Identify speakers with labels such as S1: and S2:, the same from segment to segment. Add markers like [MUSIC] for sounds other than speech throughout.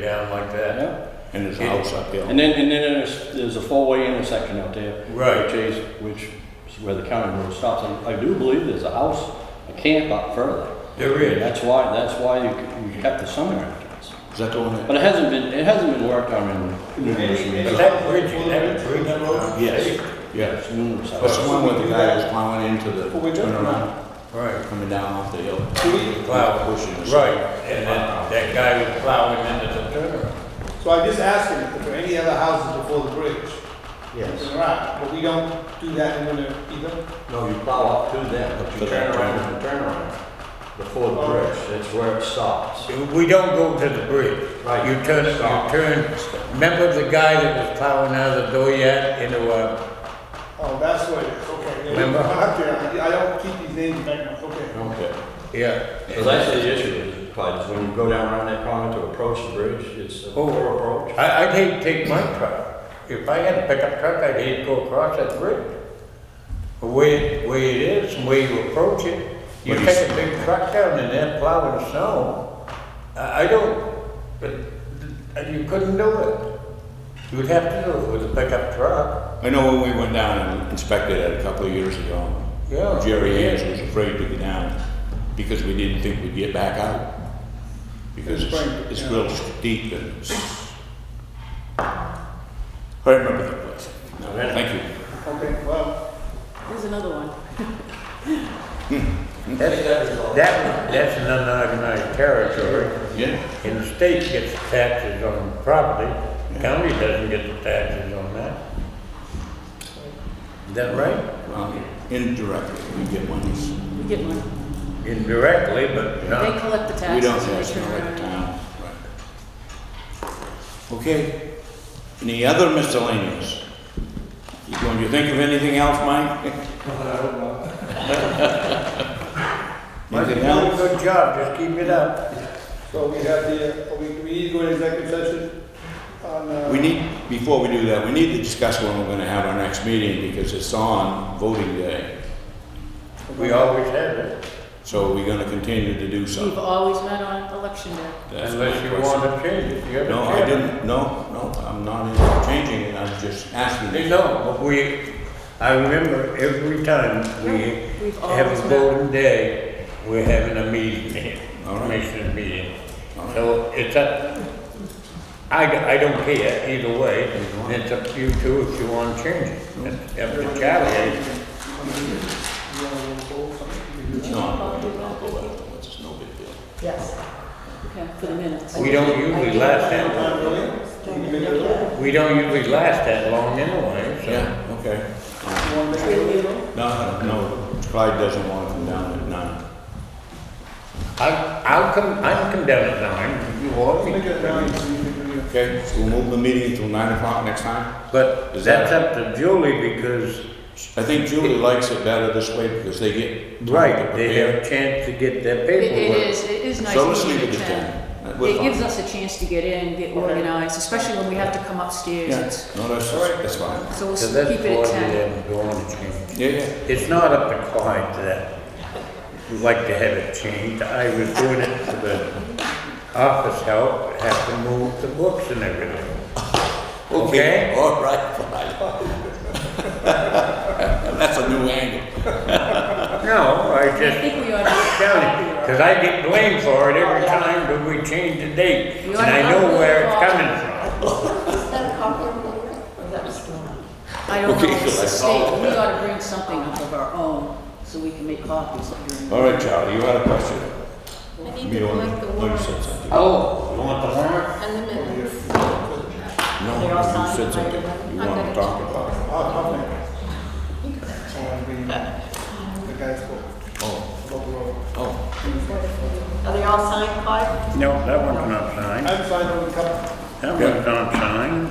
S1: down like that,
S2: Yeah.
S3: And there's a house up there.
S2: And then, and then there's, there's a four-way intersection out there.
S1: Right.
S2: Which is, which is where the county road stops. I, I do believe there's a house, a camp up further.
S1: there is.
S2: That's why, that's why you, you kept the summer rentals.
S3: Is that the one that?
S2: But it hasn't been, it hasn't been worked on in numerous
S1: But
S2: years.
S1: that bridge, that bridge over?
S3: Yes, yes.
S2: Yes, numerous.
S3: That's the
S2: hours.
S3: one where the guy was plowing into the
S4: Well, we don't
S3: turnaround,
S1: Right,
S3: coming down off the hill.
S4: Do we-
S1: plow,
S3: Pushing us.
S1: right, and then that guy was plowing into the turnaround.
S4: So I just asked him if there are any other houses before the bridge.
S5: Yes.
S4: There are, but we don't do that in winter either.
S5: No, you plow up to them, but you turn around and turn around before the bridge. That's where it stops.
S1: We don't go to the bridge.
S5: Right.
S1: You turn, you turn, remember the guy that was plowing out of the door yet uh, into a,
S4: Oh, that's what it is, okay. Yeah, we-
S1: Remember?
S4: I'm up there. I I don't keep these names back now, okay.
S3: Okay.
S1: yeah.
S5: Because that's the issue, is probably just when you go down around that corner to approach the bridge, it's a
S1: Oh.
S5: poor approach.
S1: I, I'd hate to take my truck. If I had a pickup truck, I'd hate to go across that bridge. The way, way it is, the way you approach it, you
S3: But
S1: take a big truck down and then plow in the snow. I, I don't, but, and you couldn't do it. You'd have to do it with a pickup truck.
S3: I know when we went down and inspected it a couple of years ago,
S1: Yeah.
S3: Jerry Hayes was afraid to get down because we didn't think we'd get back out. Because
S4: It's
S3: it's,
S4: pretty-
S3: it's
S4: yeah.
S3: real steep and it's. I remember that place. No, Thank you.
S4: Okay, well,
S6: There's another one.
S1: That's, that, that's an unorganized territory.
S3: Yeah,
S1: And the state gets taxes on property, county doesn't get the taxes on that. Is that right?
S3: well, indirectly, we get monies.
S6: We get one.
S1: Indirectly, but
S6: They
S1: not,
S6: collect the taxes.
S3: Uh, We don't
S6: and
S3: have
S6: they
S3: snow
S6: turn
S3: at the
S6: around.
S3: town. Right. Okay, any other miscellaneous? You Going to think of anything else,
S1: [LAUGHS]
S3: Mike?
S1: Mike, you
S3: Anything
S1: done a
S3: else?
S1: good job, just keep it up.
S4: so we have the, uh, we, we need to go into executive session on, uh.
S3: We need, before we do that, we need to discuss when we're gonna have our next meeting, because it's on voting day.
S1: We always have it,
S3: So we're gonna continue to do
S6: We've
S3: so.
S6: always met on election day.
S3: That's my
S1: unless you
S3: question.
S1: want to change it, you have a
S3: No, I
S1: choice.
S3: didn't, no, no, I'm not in- changing it, I'm just
S1: Hey,
S3: asking.
S1: No, but we, I remember every time we
S6: We've
S1: have
S6: always
S1: a
S6: met.
S1: golden day, we're having a meeting, here,
S3: All right.
S1: commission meeting.
S3: All right.
S1: So it's up, I, d- I don't care either way, it's up to you two if you want to change it. It's Up to Charlie,
S4: uh, You wanna go something? You can do
S3: No, I'll go afterwards, it's no big deal.
S6: Yes. Okay, for the minutes.
S1: we don't usually last
S4: that.
S1: that,
S4: Not really? You can make it work.
S1: we don't usually last that long anyway, so.
S3: Yeah, okay.
S4: You wanna make it work?
S3: No, no, Clyde doesn't want to come down at nine.
S1: I'll, I'll come, I'll come down at nine, you want me
S4: Make it
S1: to.
S4: nine, so you can do it.
S3: Okay, so we'll move the meeting until nine o'clock next time?
S1: But
S3: Is
S1: that's
S3: that-
S1: up to Julie because,
S3: I think Julie likes it better this way because they get. time to
S1: right, they
S3: prepare.
S1: have a chance to get their
S6: It, it
S1: paperwork.
S6: is, it is nice.
S3: So let's
S6: meeting
S3: leave it
S6: the
S3: at
S6: town.
S3: that. That was
S6: It gives
S3: fine.
S6: us a chance to get in, get organized, especially when we have to come upstairs.
S3: Yeah,
S6: It's-
S3: no, that's, that's fine.
S6: So we'll
S1: So
S6: s-
S1: that's
S6: keep it at
S1: why we
S6: ten.
S1: haven't gone to change.
S3: Yeah, yeah.
S1: It's not up to Clyde that we'd like to have it changed. I was doing it for the office help, have to move the books and everything. Okay.
S3: All right, Clyde. [LAUGHS] That's a new angle.
S1: No, I
S6: I
S1: just
S6: think we
S3: [LAUGHS]
S6: ought to.
S1: tell you, because I get blamed for it every time that we change the date.
S6: You
S1: And
S6: wanna
S1: I know
S6: upload
S1: where
S6: all-
S1: it's coming from.
S6: I don't know,
S3: Okay,
S6: it's the
S3: so I
S6: state, we ought to bring something up of our own, so we can make copies during.
S3: All right, Charlie, you had a question?
S7: I need
S3: You
S7: to
S3: don't-
S7: collect the
S3: oh, you said
S7: warrants
S3: something.
S1: Oh, you want the warrant?
S7: and the minutes.
S3: No,
S6: They're all
S3: you said
S6: signed,
S3: something.
S6: right?
S3: You
S7: I'm
S3: want to
S7: gonna-
S3: talk about it.
S4: I'll, I'll make it. I wanna be, the guy's book.
S3: Oh,
S4: About the road.
S3: oh.
S7: Are they all signed, Clyde?
S1: No, that one's not signed.
S4: I'm signed on the cup.
S1: That one's not signed.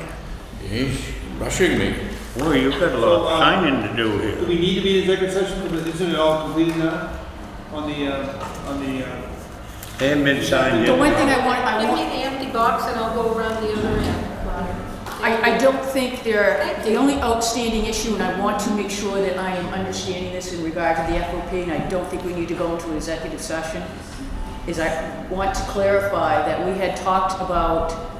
S3: He's rushing me.
S1: Well, you've got a lot of signing to do
S4: Do
S1: here.
S4: we need to be in executive session, because isn't it all completed now? On the, uh, on the, uh,
S1: They haven't been signed
S6: The one
S1: yet.
S6: thing I want, I
S7: Give
S6: want
S7: me the empty box and I'll go around the other end, Clyde.
S6: I, I don't think there, the only outstanding issue, and I want to make sure that I am understanding this in regard to the FOP, and I don't think we need to go into executive session, is I want to clarify that we had talked about